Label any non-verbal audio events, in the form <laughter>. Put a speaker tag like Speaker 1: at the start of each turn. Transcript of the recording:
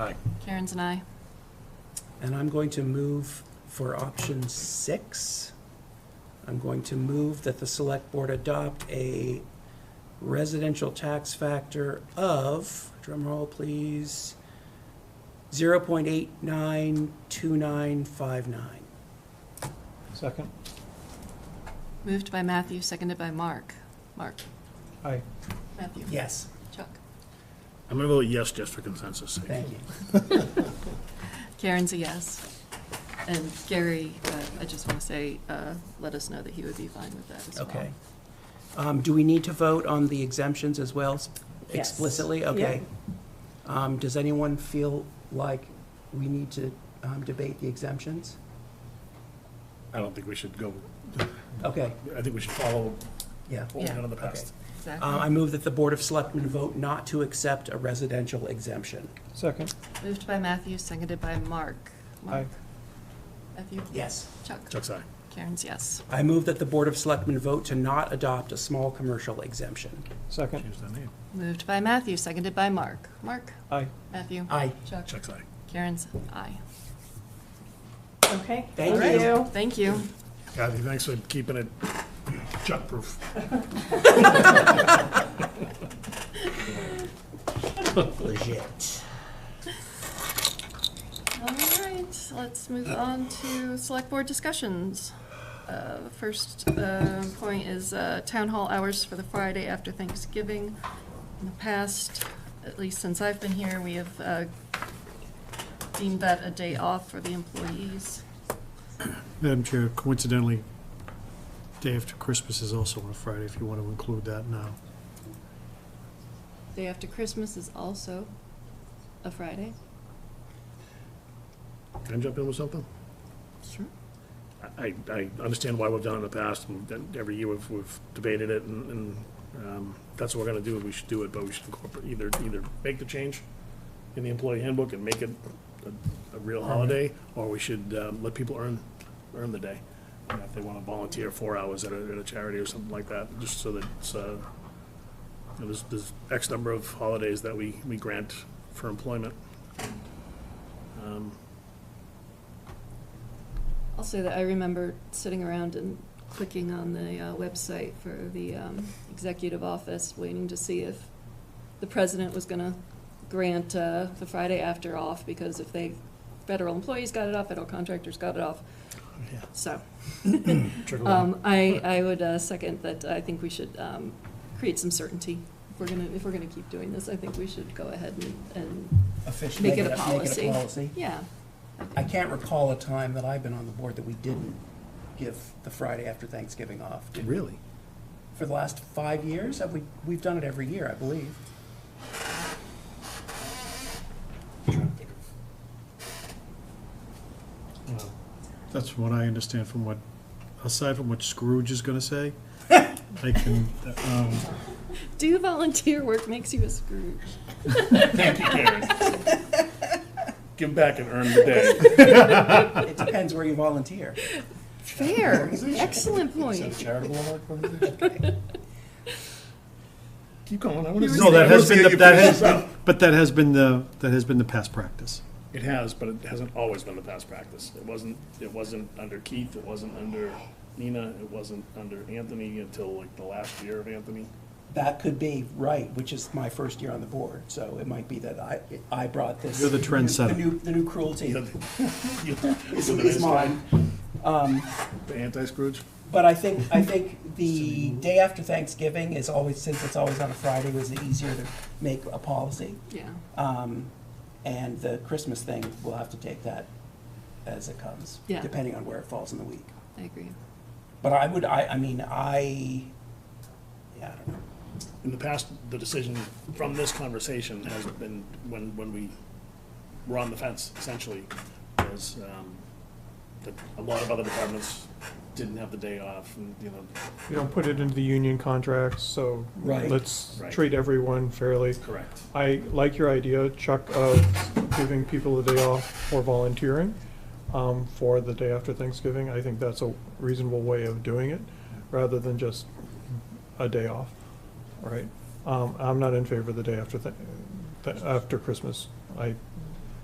Speaker 1: Aye.
Speaker 2: Karen's an aye.
Speaker 3: And I'm going to move for option six. I'm going to move that the select board adopt a residential tax factor of, drumroll please, zero point eight nine two nine five nine.
Speaker 4: Second?
Speaker 2: Moved by Matthew, seconded by Mark. Mark?
Speaker 4: Aye.
Speaker 2: Matthew?
Speaker 3: Yes,
Speaker 2: Chuck?
Speaker 1: I'm going to vote yes just for consensus sake.
Speaker 3: thank you.
Speaker 2: Karen's a yes. And Gary, uh, I just want to say, uh, let us know that he would be fine with that as well.
Speaker 3: Okay. Um, do we need to vote on the exemptions as well s-
Speaker 5: Yes.
Speaker 3: explicitly?
Speaker 5: Yeah.
Speaker 3: Okay. Um, does anyone feel like we need to, um, debate the exemptions?
Speaker 1: I don't think we should go,
Speaker 3: Okay,
Speaker 1: I think we should follow
Speaker 3: yeah.
Speaker 1: what we've done in the
Speaker 3: Yeah, okay.
Speaker 1: past.
Speaker 3: Uh,
Speaker 2: Exactly.
Speaker 3: I move that the Board of Selectmen vote not to accept a residential exemption.
Speaker 4: Second?
Speaker 2: Moved by Matthew, seconded by Mark. Mark? Matthew?
Speaker 3: Yes.
Speaker 2: Chuck?
Speaker 1: Chuck's aye.
Speaker 2: Karen's yes.
Speaker 3: I move that the Board of Selectmen vote to not adopt a small commercial exemption.
Speaker 4: Second?
Speaker 1: Change that name.
Speaker 2: Moved by Matthew, seconded by Mark. Mark?
Speaker 4: Aye.
Speaker 2: Matthew?
Speaker 3: Aye.
Speaker 2: Chuck?
Speaker 1: Chuck's aye.
Speaker 2: Karen's aye.
Speaker 5: Okay.
Speaker 3: Thank you.
Speaker 2: Thank you.
Speaker 1: Kathy, thanks for keeping it chuck-proof.
Speaker 3: Legit.
Speaker 2: All right, let's move on to select board discussions. Uh, The First uh, point is uh, town hall hours for the Friday after Thanksgiving. In the past, at least since I've been here, we have uh, deemed that a day off for the employees.
Speaker 6: Madam Chair, coincidentally, day after Christmas is also on a Friday, if you want to include that now.
Speaker 2: Day after Christmas is also a Friday.
Speaker 1: Can I jump in with something?
Speaker 2: Sure.
Speaker 1: I, I understand why we've done it in the past, and then every year we've, we've debated it, and, and um, that's what we're gonna do, we should do it, but we should incorporate, either, either make the change in the employee handbook and make it a, a real holiday, or we should um, let people earn, earn the day. You know, If they wanna volunteer four hours at a, at a charity or something like that, just so that it's, uh, you know, there's, there's X number of holidays that we, we grant for employment. Um,
Speaker 2: I'll say that I remember sitting around and clicking on the uh, website for the um, executive office, waiting to see if the president was going to grant uh, the Friday after off, because if they, federal employees got it off, federal contractors got it off.
Speaker 1: Yeah.
Speaker 2: So
Speaker 1: trickle down.
Speaker 2: um, I, I would uh, second that I think we should um, create some certainty. If we're going to, if we're going to keep doing this, I think we should go ahead and, and,
Speaker 3: Officially.
Speaker 2: Make it a policy.
Speaker 3: Make it a policy.
Speaker 2: yeah.
Speaker 3: I can't recall a time that I've been on the board that we didn't give the Friday after Thanksgiving off. did we?
Speaker 6: Really?
Speaker 3: For the last five years, have we, we've done it every year, I believe.
Speaker 6: That's what I understand from what, aside from what Scrooge is going to say, I can, um,
Speaker 2: Do volunteer work makes you a Scrooge.
Speaker 1: Thank you, Karen. Give back and earn the day.
Speaker 3: It depends where you volunteer.
Speaker 2: Fair, excellent point.
Speaker 1: charitable Keep going, I want to.
Speaker 6: no, that has been, the- that has, but that has been the, that has been the past practice.
Speaker 1: It has, but it hasn't always been the past practice. It wasn't, it wasn't under Keith, it wasn't under Nina, it wasn't under Anthony until like the last year of Anthony. <laughs>
Speaker 3: That could be right, which is my first year on the board, so it might be that I, I brought this.
Speaker 6: You're the trendsetter.
Speaker 3: The new, the new cruelty is, is
Speaker 1: It's
Speaker 3: mine. Um,
Speaker 1: The anti-Scrooge?
Speaker 3: but I think, I think the day after Thanksgiving is always, since it's always on a Friday, was easier to make a policy.
Speaker 2: Yeah.
Speaker 3: Um, and the Christmas thing, we'll have to take that as it comes,
Speaker 2: Yeah.
Speaker 3: depending on where it falls in the week.
Speaker 2: I agree.
Speaker 3: But I would, I, I mean, I, yeah, I don't know.
Speaker 1: In the past, the decision from this conversation has been, when, when we were on the fence, essentially, was um, that a lot of other departments didn't have the day off, and, you know,
Speaker 4: You don't put it into the union contracts, so
Speaker 3: Right.
Speaker 4: let's
Speaker 1: Right.
Speaker 4: treat everyone fairly.
Speaker 1: correct.
Speaker 4: I like your idea, Chuck, of giving people a day off for volunteering um, for the day after Thanksgiving. I think that's a reasonable way of doing it, rather than just a day off, all right? Um, I'm not in favor of the day after, Thank- th- after Christmas. I